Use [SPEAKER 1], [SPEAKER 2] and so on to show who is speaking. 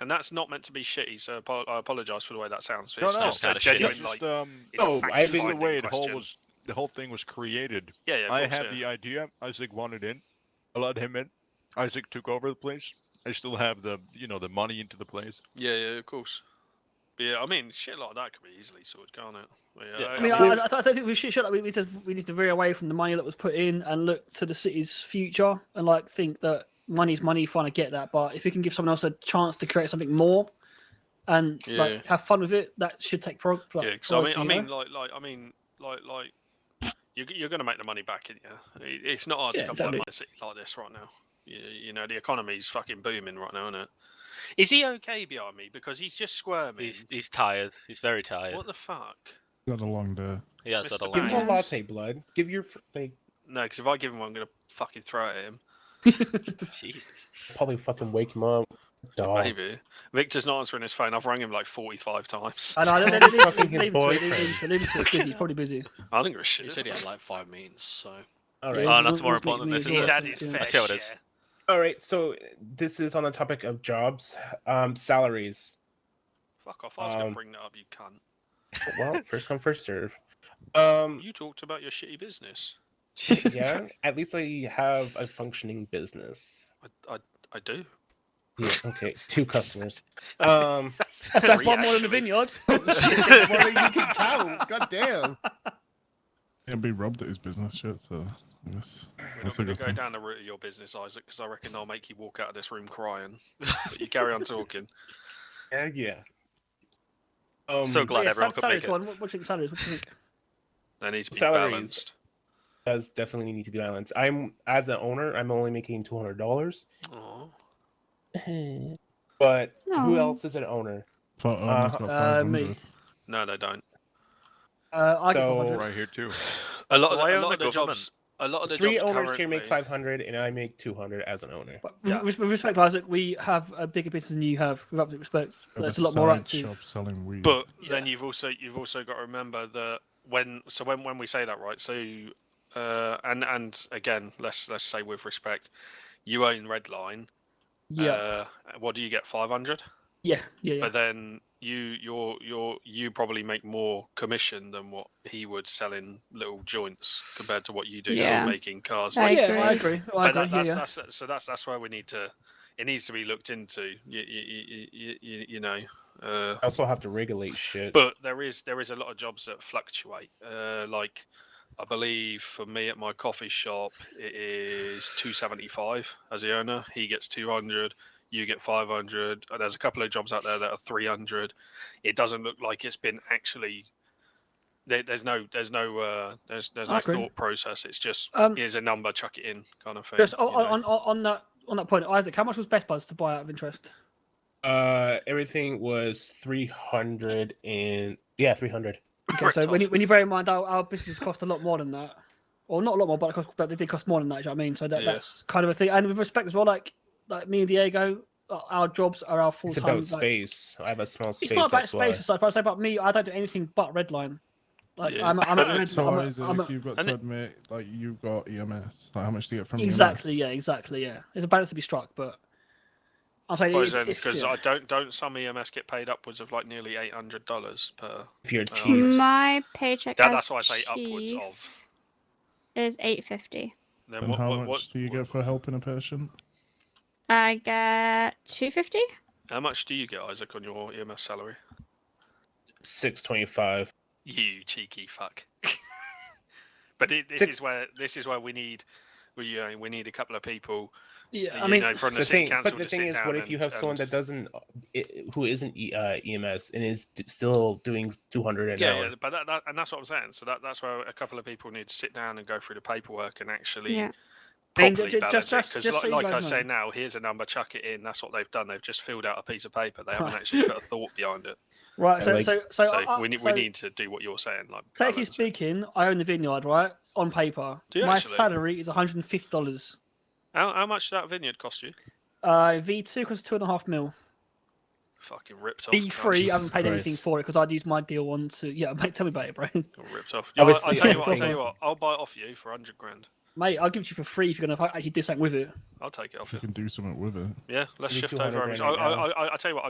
[SPEAKER 1] and that's not meant to be shitty. So apo- I apologize for the way that sounds.
[SPEAKER 2] No,
[SPEAKER 1] It's
[SPEAKER 2] no.
[SPEAKER 1] just a
[SPEAKER 3] Kinda shitty.
[SPEAKER 1] genuine
[SPEAKER 2] It's
[SPEAKER 1] like.
[SPEAKER 2] just, um,
[SPEAKER 1] it's a
[SPEAKER 2] no,
[SPEAKER 1] fact
[SPEAKER 2] I think the
[SPEAKER 1] finding
[SPEAKER 2] way the whole
[SPEAKER 1] question.
[SPEAKER 2] was the whole thing was created.
[SPEAKER 1] Yeah, yeah. of
[SPEAKER 2] I
[SPEAKER 1] course,
[SPEAKER 2] had
[SPEAKER 1] yeah.
[SPEAKER 2] the idea. Isaac wanted in, allowed him in. Isaac took over the place. I still have the you know the money into the place.
[SPEAKER 1] Yeah, yeah, of course. But yeah, I mean, shit like that could be easily sorted, can't it? But yeah,
[SPEAKER 3] Yeah.
[SPEAKER 1] I-
[SPEAKER 4] I mean,
[SPEAKER 1] I-
[SPEAKER 4] I, I, I think we should, should like, we, we, just, we need to veer away from the money that was put in and look to the city's future and like think that money's money, fine, I get that. But if we can give someone else a chance to create something more and
[SPEAKER 1] Yeah.
[SPEAKER 4] like have fun with it, that should take prog. Like,
[SPEAKER 1] Yeah, 'cause I mean,
[SPEAKER 4] priority,
[SPEAKER 1] I
[SPEAKER 4] you know?
[SPEAKER 1] mean, like, like, I mean, like, like, you're, you're going to make the money back, in you? It- It's not hard
[SPEAKER 4] Yeah,
[SPEAKER 1] to come by
[SPEAKER 4] exactly.
[SPEAKER 1] money city like this right now. You, you know, the economy's fucking booming right now, isn't it? Is he okay behind me? Because he's just squirming.
[SPEAKER 3] He's he's tired. He's very tired.
[SPEAKER 1] What the fuck?
[SPEAKER 5] Got a long day.
[SPEAKER 3] He has had a
[SPEAKER 1] Mr.
[SPEAKER 6] Give him
[SPEAKER 3] long.
[SPEAKER 6] a latte, blood. Give your f- they
[SPEAKER 1] No, because if I give him one, I'm going to fucking throw it at him.
[SPEAKER 3] Jesus.
[SPEAKER 6] probably fucking wake him up. Dog.
[SPEAKER 1] Maybe. Victor's not answering his phone. I've rang him like 45 times.
[SPEAKER 4] I know, I don't-
[SPEAKER 6] Fucking
[SPEAKER 4] leave- leave
[SPEAKER 6] his
[SPEAKER 4] him to it, leave him
[SPEAKER 6] boyfriend.
[SPEAKER 4] to it, leave him to it, 'cause He's probably busy.
[SPEAKER 1] I don't give
[SPEAKER 7] He
[SPEAKER 1] a shit.
[SPEAKER 7] said he had like five meetings, so
[SPEAKER 6] All
[SPEAKER 4] Yeah,
[SPEAKER 6] right.
[SPEAKER 3] Oh,
[SPEAKER 4] he's-
[SPEAKER 3] that's more
[SPEAKER 4] he's
[SPEAKER 3] important than
[SPEAKER 4] making
[SPEAKER 3] this,
[SPEAKER 4] me
[SPEAKER 3] isn't
[SPEAKER 1] He's
[SPEAKER 3] it?
[SPEAKER 4] aware
[SPEAKER 1] had
[SPEAKER 4] of
[SPEAKER 1] his
[SPEAKER 4] things,
[SPEAKER 1] fair
[SPEAKER 4] yeah.
[SPEAKER 3] I see how it
[SPEAKER 1] share.
[SPEAKER 3] is.
[SPEAKER 6] All right. So this is on the topic of jobs, um, salaries.
[SPEAKER 1] Fuck off. I was going
[SPEAKER 6] Um,
[SPEAKER 1] to bring that up, you cunt.
[SPEAKER 6] Well, first come, first serve. Um,
[SPEAKER 1] You talked about your shitty business.
[SPEAKER 3] Jesus
[SPEAKER 6] yeah.
[SPEAKER 3] Christ.
[SPEAKER 6] At least I have a functioning business.
[SPEAKER 1] I, I, I do.
[SPEAKER 6] Yeah, okay, two customers. Um,
[SPEAKER 4] So that's
[SPEAKER 1] three,
[SPEAKER 4] one more than
[SPEAKER 1] actually.
[SPEAKER 4] the vineyard.
[SPEAKER 6] that's more than you can count. God damn.
[SPEAKER 5] It'd be robbed at his business shit, so I guess
[SPEAKER 1] We're not
[SPEAKER 5] that's a
[SPEAKER 1] going to
[SPEAKER 5] good
[SPEAKER 1] go
[SPEAKER 5] thing.
[SPEAKER 1] down the route of your business, Isaac, because I reckon they'll make you walk out of this room crying. But you carry on talking.
[SPEAKER 6] Yeah, yeah. Um,
[SPEAKER 3] so glad
[SPEAKER 4] Yeah,
[SPEAKER 3] everyone
[SPEAKER 4] sal-
[SPEAKER 3] could
[SPEAKER 4] salaries
[SPEAKER 3] make it.
[SPEAKER 4] one. What, what do you think salaries? What do you think?
[SPEAKER 1] They need to be
[SPEAKER 6] Salaries.
[SPEAKER 1] balanced.
[SPEAKER 6] does definitely need to be balanced. I'm as an owner, I'm only making two hundred dollars.
[SPEAKER 1] Aw.
[SPEAKER 6] But
[SPEAKER 4] Aw.
[SPEAKER 6] who else is an owner?
[SPEAKER 5] Thought Owner's
[SPEAKER 6] Uh,
[SPEAKER 5] oh, got
[SPEAKER 4] uh, me.
[SPEAKER 5] 500.
[SPEAKER 1] No, they don't.
[SPEAKER 4] Uh, I give
[SPEAKER 6] So-
[SPEAKER 4] 100.
[SPEAKER 2] Right here too.
[SPEAKER 1] A lot
[SPEAKER 3] So
[SPEAKER 1] of the,
[SPEAKER 3] why
[SPEAKER 1] a
[SPEAKER 3] own
[SPEAKER 1] lot
[SPEAKER 3] the
[SPEAKER 1] of the
[SPEAKER 3] government?
[SPEAKER 1] jobs. A lot of the
[SPEAKER 6] Three
[SPEAKER 1] jobs
[SPEAKER 6] owners here make
[SPEAKER 1] currently-
[SPEAKER 6] five hundred, and I make two hundred as an owner.
[SPEAKER 4] But
[SPEAKER 3] Yeah.
[SPEAKER 4] with, with respect, Isaac, we have a bigger business than you have. With absolute respect,
[SPEAKER 5] Got
[SPEAKER 4] that's a
[SPEAKER 5] a
[SPEAKER 4] lot more
[SPEAKER 5] side
[SPEAKER 4] active.
[SPEAKER 5] Shop selling weed.
[SPEAKER 1] But then
[SPEAKER 4] Yeah.
[SPEAKER 1] you've also you've also got to remember that when so when when we say that right so uh, and and again let's let's say with respect you own Redline
[SPEAKER 4] Yeah,
[SPEAKER 1] uh, what do you get five hundred
[SPEAKER 4] yeah, yeah, yeah.
[SPEAKER 1] but then you you're you're you probably make more commission than what he would selling little joints compared to what you do
[SPEAKER 8] Yeah.
[SPEAKER 1] making cars.
[SPEAKER 8] I
[SPEAKER 1] Like,
[SPEAKER 4] yeah, Oh, I
[SPEAKER 8] agree.
[SPEAKER 4] agree. I
[SPEAKER 1] but
[SPEAKER 4] agree.
[SPEAKER 1] that, that's,
[SPEAKER 4] yeah, yeah.
[SPEAKER 1] that's, so that's that's where we need to. It needs to be looked into. You you you, you, you know. Uh,
[SPEAKER 6] I also have to regulate shit.
[SPEAKER 1] but there is there is a lot of jobs that fluctuate. Uh, like I believe for me at my coffee shop it is 275 as the owner. He gets 200, you get 500. Uh, There's a couple of jobs out there that are 300. It doesn't look like it's been actually. There, there's no there's no uh, there's there's
[SPEAKER 4] I
[SPEAKER 1] no
[SPEAKER 4] agree.
[SPEAKER 1] thought process. It's just
[SPEAKER 4] Um,
[SPEAKER 1] here's a number, chuck it in kind of thing.
[SPEAKER 4] just
[SPEAKER 1] you
[SPEAKER 4] on,
[SPEAKER 1] know.
[SPEAKER 4] on, on, on that on that point, Isaac, how much was Best Buds to buy out of interest?
[SPEAKER 6] uh, everything was three hundred and yeah, three hundred.
[SPEAKER 4] Okay,
[SPEAKER 1] Right
[SPEAKER 4] so when
[SPEAKER 1] off.
[SPEAKER 4] you, when you bear in mind our, our business cost a lot more than that, or not a lot more, but, it cost, but they did cost more than that. do you know what I mean? So that,
[SPEAKER 1] Yeah.
[SPEAKER 4] that's kind of a thing. And with respect as well, like like me and Diego, uh, our jobs are our full
[SPEAKER 6] It's
[SPEAKER 4] time.
[SPEAKER 6] about
[SPEAKER 4] like,
[SPEAKER 6] space. I have a small space.
[SPEAKER 4] It's not about
[SPEAKER 6] that's why.
[SPEAKER 4] space. It's like if I say about me, I don't do anything but Redline. Like
[SPEAKER 1] Yeah.
[SPEAKER 4] I'm, a- I'm, a
[SPEAKER 1] So
[SPEAKER 4] red,
[SPEAKER 5] So
[SPEAKER 4] I'm,
[SPEAKER 5] why
[SPEAKER 4] a-
[SPEAKER 5] is it
[SPEAKER 4] I'm a-
[SPEAKER 5] like you've got
[SPEAKER 1] and
[SPEAKER 5] to
[SPEAKER 1] it-
[SPEAKER 5] admit, like you've got EMS. Like how much do you get from E
[SPEAKER 4] Exactly,
[SPEAKER 5] EMS?
[SPEAKER 4] yeah, exactly, yeah. There's a balance to be struck, but I'm saying
[SPEAKER 1] Because
[SPEAKER 4] if- if- yeah.
[SPEAKER 1] I don't don't some EMS get paid upwards of like nearly eight hundred dollars per.
[SPEAKER 6] If you're
[SPEAKER 1] Uh,
[SPEAKER 4] Mm.
[SPEAKER 6] chief,
[SPEAKER 8] My paycheck
[SPEAKER 1] That-
[SPEAKER 8] as
[SPEAKER 1] that's why I say upwards
[SPEAKER 8] chief
[SPEAKER 1] of.
[SPEAKER 8] is eight fifty.
[SPEAKER 1] Then
[SPEAKER 5] And
[SPEAKER 1] what,
[SPEAKER 5] how
[SPEAKER 1] what,
[SPEAKER 5] much
[SPEAKER 1] what,
[SPEAKER 5] do you
[SPEAKER 1] what-
[SPEAKER 5] get for helping a patient?
[SPEAKER 8] I get two fifty.
[SPEAKER 1] How much do you get, Isaac, on your EMS salary?
[SPEAKER 6] six twenty-five.
[SPEAKER 1] You cheeky fuck. but it, this
[SPEAKER 6] Six-
[SPEAKER 1] is where this is where we need we you know, we need a couple of people.
[SPEAKER 4] yeah,
[SPEAKER 1] you
[SPEAKER 4] I mean,
[SPEAKER 1] know, from the,
[SPEAKER 6] The
[SPEAKER 1] city
[SPEAKER 6] thing,
[SPEAKER 1] council
[SPEAKER 6] but the
[SPEAKER 1] to
[SPEAKER 6] thing
[SPEAKER 1] sit
[SPEAKER 6] is,
[SPEAKER 1] down
[SPEAKER 6] what if you
[SPEAKER 1] and-
[SPEAKER 6] have someone that
[SPEAKER 1] and-
[SPEAKER 6] doesn't, uh, i- who isn't E- uh, EMS and is d- still doing two hundred an
[SPEAKER 1] Yeah,
[SPEAKER 6] hour?
[SPEAKER 1] yeah, but that, that and that's what I'm saying. So that, that's where a couple of people need to sit down and go through the paperwork and actually
[SPEAKER 8] Yeah.
[SPEAKER 4] And
[SPEAKER 1] properly
[SPEAKER 4] ju- ju-
[SPEAKER 1] balance
[SPEAKER 4] just- just-
[SPEAKER 1] it. Because
[SPEAKER 4] just
[SPEAKER 1] like,
[SPEAKER 4] so you
[SPEAKER 1] like I
[SPEAKER 4] guys
[SPEAKER 1] say
[SPEAKER 4] know.
[SPEAKER 1] now, here's a number, chuck it in. That's what they've done. They've just filled out a piece of paper. They haven't actually put a thought behind it.
[SPEAKER 4] right. So,
[SPEAKER 6] like-
[SPEAKER 4] so, so,
[SPEAKER 1] So
[SPEAKER 4] I- I-
[SPEAKER 1] we need
[SPEAKER 4] so
[SPEAKER 1] we need to do what you're saying. Like
[SPEAKER 4] Technically
[SPEAKER 1] balance it.
[SPEAKER 4] speaking, I own the vineyard, right? On paper,
[SPEAKER 1] Do you
[SPEAKER 4] my
[SPEAKER 1] actually?
[SPEAKER 4] salary is 150 dollars.
[SPEAKER 1] How, how much did that vineyard cost you?
[SPEAKER 4] Uh, V2 costs two and a half mil.
[SPEAKER 1] Fucking ripped off. can't
[SPEAKER 4] V3,
[SPEAKER 1] you?
[SPEAKER 4] I haven't paid
[SPEAKER 6] Jesus
[SPEAKER 4] anything
[SPEAKER 6] Christ.
[SPEAKER 4] for it because I'd used my deal on to. Yeah, mate, tell me about it, bro.
[SPEAKER 1] Got ripped off.
[SPEAKER 6] I
[SPEAKER 1] Yeah, I,
[SPEAKER 6] was
[SPEAKER 1] I
[SPEAKER 6] the
[SPEAKER 1] tell you
[SPEAKER 6] other
[SPEAKER 1] what, I tell
[SPEAKER 6] thing
[SPEAKER 1] you
[SPEAKER 6] was-
[SPEAKER 1] what, I'll buy it off you for hundred grand.
[SPEAKER 4] Mate, I'll give it to you for free if you're going to actually do something with it.
[SPEAKER 1] I'll take it off
[SPEAKER 5] If you
[SPEAKER 1] you.
[SPEAKER 5] can do something with it.
[SPEAKER 1] Yeah, let's
[SPEAKER 6] Give me
[SPEAKER 1] shift over.
[SPEAKER 6] 200
[SPEAKER 1] and- I,
[SPEAKER 6] grand right
[SPEAKER 1] I, I, I tell you what,